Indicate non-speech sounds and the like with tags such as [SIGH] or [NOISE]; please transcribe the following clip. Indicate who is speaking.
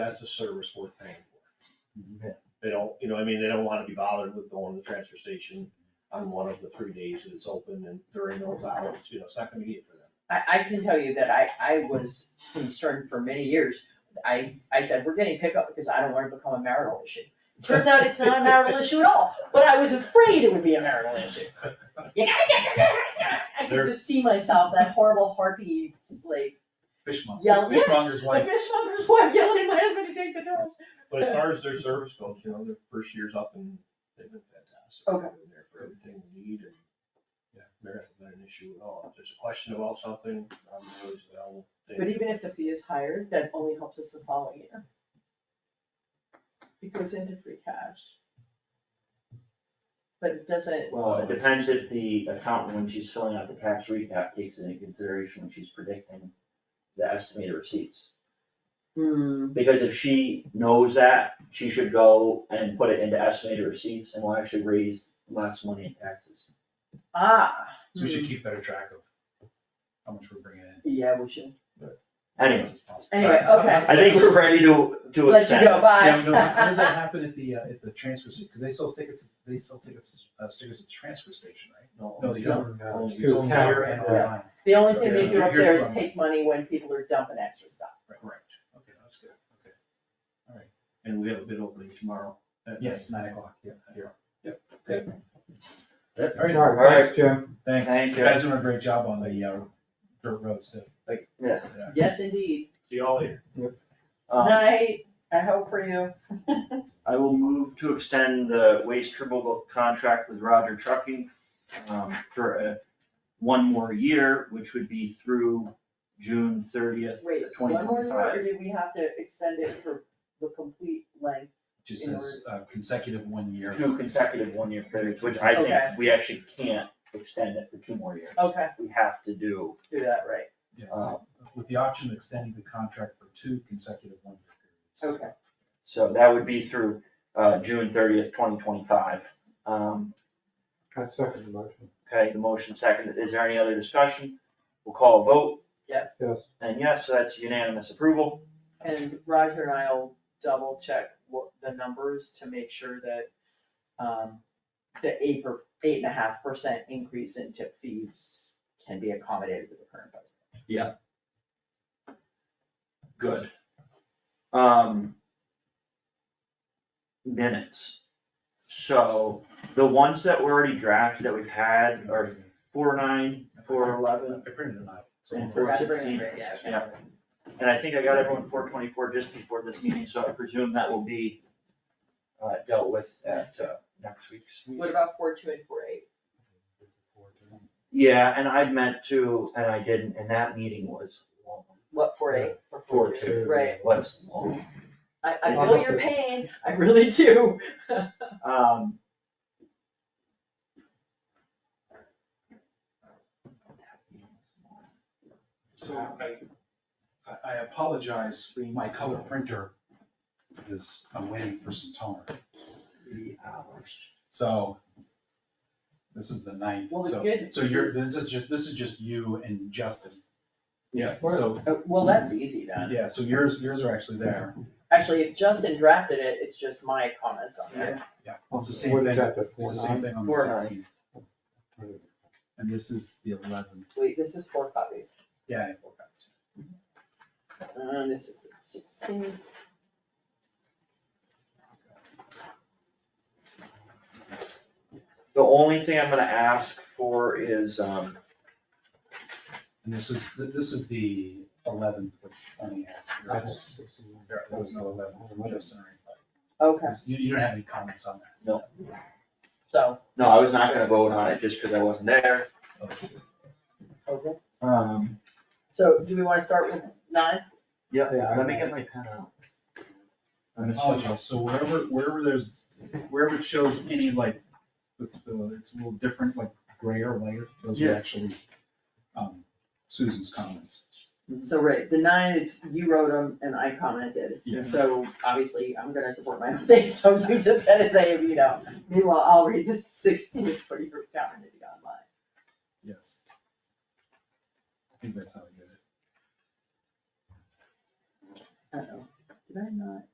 Speaker 1: that's a service worth paying for.
Speaker 2: Mhm.
Speaker 1: They don't, you know, I mean, they don't wanna be bothered with going to the transfer station on one of the three days that it's open and during those hours, you know, it's not convenient for them.
Speaker 3: I, I can tell you that I, I was concerned for many years. I, I said, we're getting pickup because I don't want to become a marital issue. Turns out it's not a marital issue at all, but I was afraid it would be a marital issue. You gotta get your I could
Speaker 2: There-
Speaker 3: just see myself, that horrible harpy, like,
Speaker 2: Fishmonger,
Speaker 3: Yeah, yes, [LAUGHS]
Speaker 2: fishmonger's
Speaker 3: the
Speaker 2: wife.
Speaker 3: fishmonger's wife yelling at my husband to take the trash.
Speaker 1: But as far as their service goes, you know, their first year's up and they've been fantastic.
Speaker 3: Okay.
Speaker 1: They've been there for everything we need and, yeah, there hasn't been an issue at all. If there's a question about something, I'm always available. They-
Speaker 3: But even if the fee is higher, that only helps us the following year. It goes into free cash. But it doesn't,
Speaker 2: Well,
Speaker 4: Well,
Speaker 2: it's-
Speaker 4: it depends if the accountant, when she's filling out the tax recap, takes into consideration when she's predicting the estimated receipts.
Speaker 3: Mm-hmm.
Speaker 4: Because if she knows that, she should go and put it into estimated receipts and will actually raise less money in taxes.
Speaker 3: Ah.
Speaker 2: So we should keep better track of how much we're bringing in.
Speaker 3: Yeah, we should.
Speaker 4: Anyways,
Speaker 3: Anyway, okay.
Speaker 4: I think we're ready to, to
Speaker 3: Let you
Speaker 4: extend.
Speaker 3: go,
Speaker 2: Yeah, no, how does that
Speaker 3: bye.
Speaker 2: happen at the, uh, at the transfer station? Cause they sell tickets, they sell tickets, uh, stickers at the transfer station, right? No, they don't.
Speaker 1: Only-
Speaker 2: It's only here and
Speaker 3: Yeah.
Speaker 2: online.
Speaker 3: [LAUGHS] The only thing they do
Speaker 2: Yeah,
Speaker 3: up there is
Speaker 2: you're-
Speaker 3: take money when people are dumping extra stuff.
Speaker 2: Correct. Okay, that's good, okay. All right.
Speaker 1: And we have a bid opening tomorrow. at
Speaker 2: Yes, nine o'clock, yeah, here. Yep. Good.
Speaker 4: Yep.
Speaker 2: All right.
Speaker 5: All right, thanks, Jim.
Speaker 2: Thanks.
Speaker 4: Thank
Speaker 2: You
Speaker 4: you.
Speaker 2: guys doing a great job on the, uh, dirt roads too. Like.
Speaker 4: Yeah.
Speaker 3: Yes, indeed.
Speaker 1: See y'all later.
Speaker 4: Um,
Speaker 3: Night, I hope for you.
Speaker 4: I will move to extend the waste removal contract with Roger Trucking um, for a, one more year, which would be through June thirtieth,
Speaker 3: [LAUGHS] Wait,
Speaker 4: twenty
Speaker 3: one more, minute, or
Speaker 4: twenty-five.
Speaker 3: do we have to extend it for the complete length?
Speaker 2: Just says uh, consecutive one year.
Speaker 4: Two consecutive one-year periods, which I
Speaker 3: Okay.
Speaker 4: think we actually can't extend it for two more years.
Speaker 3: Okay,
Speaker 4: We have to do, um,
Speaker 3: do that right.
Speaker 2: Yeah, so with the option of extending the contract for two consecutive one-year periods.
Speaker 3: Okay.
Speaker 4: so that would be through uh, June thirtieth, twenty twenty-five. Okay,
Speaker 5: I second the motion.
Speaker 4: the motion seconded. Is there any other discussion? We'll call a vote,
Speaker 3: Yes,
Speaker 5: Yes,
Speaker 4: and yes, so that's unanimous approval.
Speaker 3: and Roger and I'll double check what the numbers to make sure that, um, the eight per, eight and a half percent increase in tip fees can be accommodated with the current budget.
Speaker 4: Good. Um. Minutes. So the ones that were already drafted that we've had are four nine, four eleven,
Speaker 2: I printed them out. so-
Speaker 4: And
Speaker 3: Forgot to bring it,
Speaker 4: 416,
Speaker 3: yeah,
Speaker 4: yeah.
Speaker 3: okay.
Speaker 4: And I think I got everyone four twenty-four just before this meeting, so I presume that will be uh, dealt with at uh, next week's
Speaker 3: What
Speaker 4: meeting.
Speaker 3: about four two and four eight?
Speaker 4: Yeah, and I meant to, and I didn't, and that meeting was long.
Speaker 3: What, four eight or
Speaker 4: Four
Speaker 3: four two?
Speaker 4: two.
Speaker 3: Right,
Speaker 4: Was long.
Speaker 3: I, I feel your pain, I really do.
Speaker 4: Um.
Speaker 2: So I, I- I apologize, my color printer is, I'm waiting for some toner.
Speaker 4: Three hours.
Speaker 2: So this is the ninth,
Speaker 3: Well, it's
Speaker 2: so,
Speaker 3: good.
Speaker 2: so you're, this is just, this is just you and Justin. Yeah, so,
Speaker 3: Uh, Well, that's easy then.
Speaker 2: yeah, so yours, yours are actually there.
Speaker 3: Actually, if Justin drafted it, it's just my comments on it.
Speaker 2: Yeah, it's the same
Speaker 5: What is
Speaker 2: thing,
Speaker 5: that, the
Speaker 2: it's the same thing on the
Speaker 4: Four nine.
Speaker 2: sixteenth. And this is the eleventh.
Speaker 3: Wait, this is four copies.
Speaker 2: Yeah. I forgot.
Speaker 3: Uh, this is sixteen.
Speaker 4: The only thing I'm gonna ask for is, um,
Speaker 2: And this is, this is the eleventh, which only had, there was no eleventh from Justin or anybody.
Speaker 3: Okay,
Speaker 2: You, you don't have any comments on that?
Speaker 3: so,
Speaker 4: no, I was not gonna vote on it just because I wasn't there.
Speaker 3: okay.
Speaker 4: Um,
Speaker 3: So do we wanna start with nine?
Speaker 4: yeah,
Speaker 5: Yeah,
Speaker 4: let me
Speaker 5: I- Oh,
Speaker 4: get my pen out. I'm assuming-
Speaker 2: Apologies, so wherever, wherever there's, wherever it shows any like, the- the- it's a little different, like grayer layer, those are
Speaker 4: Yeah.
Speaker 2: actually um, Susan's comments.
Speaker 3: So right, the nine, it's, you wrote them and I commented.
Speaker 2: Yeah.
Speaker 3: So obviously, I'm gonna support my own [LAUGHS] thing, so you just gotta say if you don't. Meanwhile, I'll read the sixteen for your comment if you got mine.
Speaker 2: Yes. I think that's how I did it.
Speaker 3: Uh-oh, Did I not?